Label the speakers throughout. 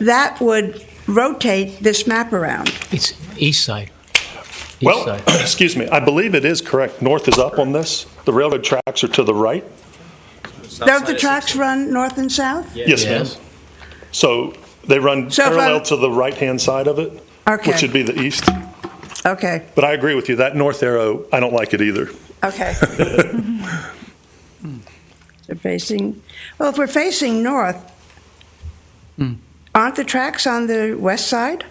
Speaker 1: that would rotate this map around.
Speaker 2: It's east side. East
Speaker 3: Well,
Speaker 2: side.
Speaker 3: excuse me, I believe it is correct. North is up on this. The railroad tracks are to the right.
Speaker 1: Don't the tracks run north and south?
Speaker 3: Yes, ma'am.
Speaker 2: Yes.
Speaker 3: So they run
Speaker 1: So if I-
Speaker 3: parallel to the right-hand side of it,
Speaker 1: Okay.
Speaker 3: which would be the east.
Speaker 1: Okay,
Speaker 3: But I agree with you, that north arrow, I don't like it either.
Speaker 1: okay. They're facing, well, if we're facing north, aren't the tracks on the west side?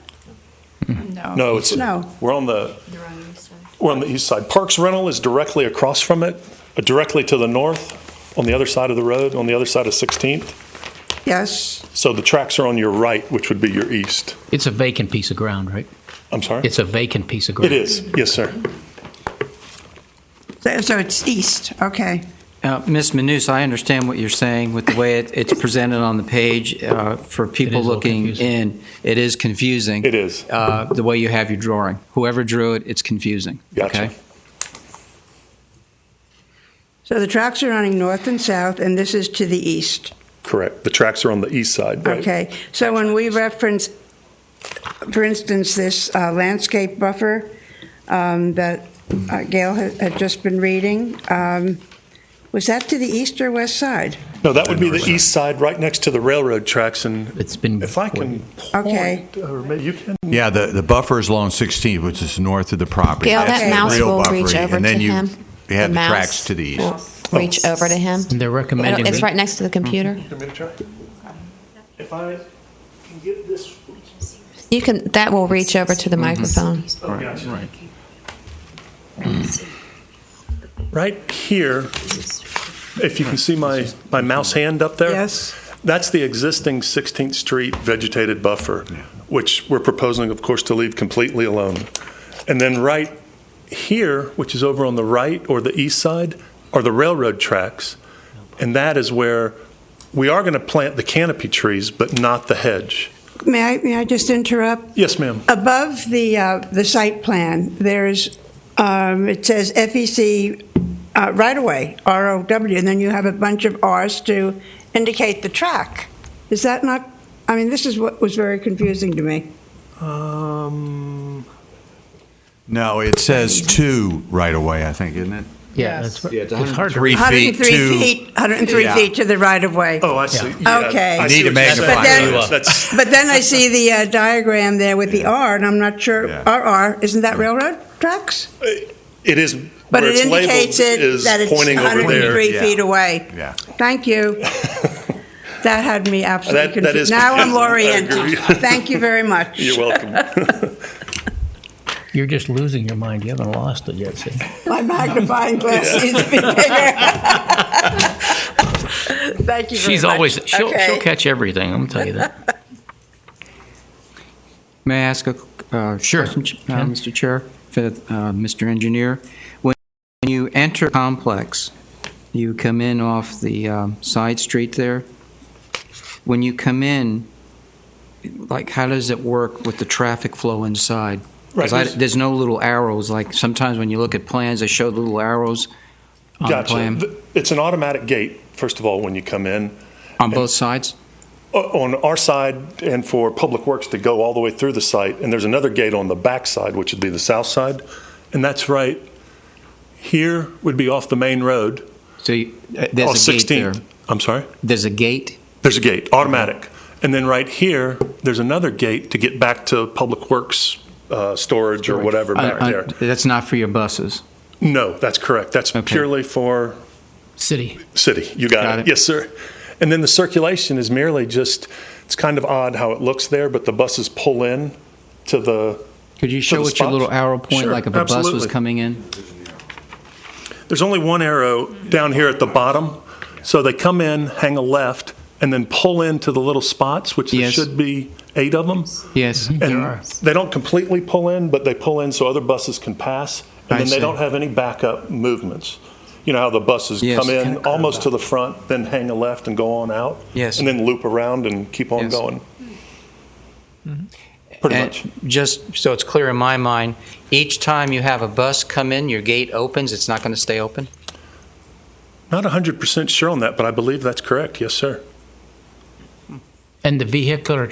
Speaker 3: No, it's,
Speaker 1: Oh, No.
Speaker 3: we're on the,
Speaker 4: They're on your side.
Speaker 3: we're on the east side. Parks Rental is directly across from it, uh, directly to the north, on the other side of the road, on the other side of 16th.
Speaker 1: Yes,
Speaker 3: So the tracks are on your right, which would be your east.
Speaker 2: It's a vacant piece of ground, right?
Speaker 3: I'm sorry?
Speaker 2: It's a vacant piece of ground.
Speaker 3: It is, yes, sir.
Speaker 1: so so it's east, okay.
Speaker 5: Uh, Ms. Manous, I understand what you're saying with the way it- it's presented on the page. uh, For
Speaker 2: a
Speaker 5: people
Speaker 2: little
Speaker 5: looking
Speaker 2: confusing.
Speaker 5: in, it is confusing.
Speaker 3: It is.
Speaker 5: uh, The way you have your drawing. Whoever drew it, it's confusing.
Speaker 3: Gotcha.
Speaker 5: okay?
Speaker 1: So the tracks are running north and south, and this is to the east.
Speaker 3: Correct. The tracks are on the east side, right?
Speaker 1: Okay, so when we reference, for instance, this uh, landscape buffer um, that uh, Gail had had just been reading, um, was that to the east or west side?
Speaker 3: No, that would be the east side, right next to the railroad tracks, and
Speaker 2: It's been.
Speaker 3: if I can
Speaker 1: Okay.
Speaker 3: point, or maybe you can,
Speaker 6: Yeah, the, the buffer is along 16, which is north of the property.
Speaker 4: Gail,
Speaker 6: That's
Speaker 4: that
Speaker 6: the
Speaker 4: mouse
Speaker 6: real
Speaker 4: will
Speaker 6: buffer
Speaker 4: reach
Speaker 6: area.
Speaker 4: over
Speaker 6: And then
Speaker 4: to
Speaker 6: you-
Speaker 4: him.
Speaker 6: You have the
Speaker 4: mouse
Speaker 6: tracks to the east.
Speaker 4: will Reach over to him. Oh,
Speaker 2: They're recommending.
Speaker 4: It's right next to the computer.
Speaker 6: Mm-hmm.
Speaker 3: you want me to try? If I can get this,
Speaker 4: You can, that will reach over to the microphone.
Speaker 3: oh, gotcha. Right here, if you can see my, my mouse hand up there?
Speaker 1: Yes.
Speaker 3: That's the existing 16th Street vegetated buffer, which we're proposing, of course, to leave completely alone. And then right here, which is over on the right or the east side, are the railroad tracks. And that is where we are going to plant the canopy trees, but not the hedge.
Speaker 1: May I, may I just interrupt?
Speaker 3: Yes, ma'am.
Speaker 1: Above the, uh, the site plan, there's, um, it says FEC uh, right-of-way, ROW, and then you have a bunch of Rs to indicate the track. Is that not, I mean, this is what was very confusing to me.
Speaker 3: Um,
Speaker 6: No, it says two right away, I think, isn't it?
Speaker 2: Yeah, that's right. It's hard to
Speaker 6: Three feet,
Speaker 1: 103
Speaker 6: two.
Speaker 1: feet, 103
Speaker 6: Yeah.
Speaker 1: feet to the right-of-way.
Speaker 3: oh, I see.
Speaker 1: Yeah. Okay.
Speaker 3: I
Speaker 1: You
Speaker 3: see
Speaker 6: need a
Speaker 3: what you're saying.
Speaker 1: magnifier. But then-
Speaker 3: That's- that's-
Speaker 1: But then I see the uh, diagram there with the R, and I'm not sure,
Speaker 6: Yeah.
Speaker 1: RR, isn't that railroad tracks?
Speaker 3: It is,
Speaker 1: But
Speaker 3: where
Speaker 1: it
Speaker 3: it's labeled
Speaker 1: indicates it,
Speaker 3: is
Speaker 1: that it's
Speaker 3: pointing over there.
Speaker 1: 103
Speaker 6: Yeah.
Speaker 1: feet away.
Speaker 6: Yeah.
Speaker 1: Thank you. That had me absolutely
Speaker 3: That- that is
Speaker 1: confused. Now I'm
Speaker 3: confusing. I
Speaker 1: oriented.
Speaker 3: agree.
Speaker 1: Thank you very much.
Speaker 3: You're welcome.
Speaker 2: You're just losing your mind. You haven't lost it yet. See?
Speaker 1: My magnifying glass needs to be bigger. Thank you very
Speaker 2: She's
Speaker 1: much.
Speaker 2: always. She'll,
Speaker 1: Okay.
Speaker 2: she'll catch everything. I'm tell you that.
Speaker 5: May I ask a uh,
Speaker 2: Sure.
Speaker 5: question, Ch- uh, Mr. Chair, for, uh, Mr. Engineer? When you enter complex, you come in off the um, side street there. When you come in, like, how does it work with the traffic flow inside? 'Cause I-
Speaker 3: Right.
Speaker 5: There's no little arrows, like sometimes when you look at plans, they show the little arrows on the
Speaker 3: Gotcha.
Speaker 5: plan,
Speaker 3: Th- It's an automatic gate, first of all, when you come in.
Speaker 5: on both sides?
Speaker 3: O- On our side and for Public Works to go all the way through the site, and there's another gate on the back side, which would be the south side. And that's right here would be off the main road.
Speaker 5: So you- uh,
Speaker 3: off
Speaker 5: there's a gate
Speaker 3: 16th.
Speaker 5: there.
Speaker 3: I'm sorry?
Speaker 5: There's a gate?
Speaker 3: There's a gate, automatic. And then right here, there's another gate to get back to Public Works uh, storage or whatever back
Speaker 5: Uh, uh,
Speaker 3: there.
Speaker 5: That's not for your buses?
Speaker 3: No, that's correct. That's
Speaker 5: Okay.
Speaker 3: purely for
Speaker 2: City.
Speaker 3: City, you got,
Speaker 5: Got
Speaker 3: it.
Speaker 5: it.
Speaker 3: Yes, sir. And then the circulation is merely just, it's kind of odd how it looks there, but the buses pull in to the,
Speaker 5: Could
Speaker 3: the
Speaker 5: you show what your
Speaker 3: spots?
Speaker 5: little arrow point,
Speaker 3: Sure,
Speaker 5: like if a bus was
Speaker 3: absolutely.
Speaker 5: coming in?
Speaker 3: there's only one arrow down here at the bottom. So they come in, hang a left, and then pull into the little spots, which there
Speaker 5: Yes.
Speaker 3: should be eight of them.
Speaker 5: Yes.
Speaker 3: And they don't completely pull in, but they pull in so other buses can pass. And
Speaker 5: I
Speaker 3: then they
Speaker 5: see.
Speaker 3: don't have any backup movements. You know how the buses
Speaker 5: Yes.
Speaker 3: come in
Speaker 5: Kind of
Speaker 3: almost to the front, then hang a left and go on out?
Speaker 5: Yes.
Speaker 3: And then loop around and keep on
Speaker 5: Yes. Mm-hmm.
Speaker 3: going? Pretty
Speaker 5: And
Speaker 3: much.
Speaker 5: Just so it's clear in my mind, each time you have a bus come in, your gate opens, it's not going to stay open?
Speaker 3: Not 100% sure on that, but I believe that's correct. Yes, sir.
Speaker 2: And the vehicular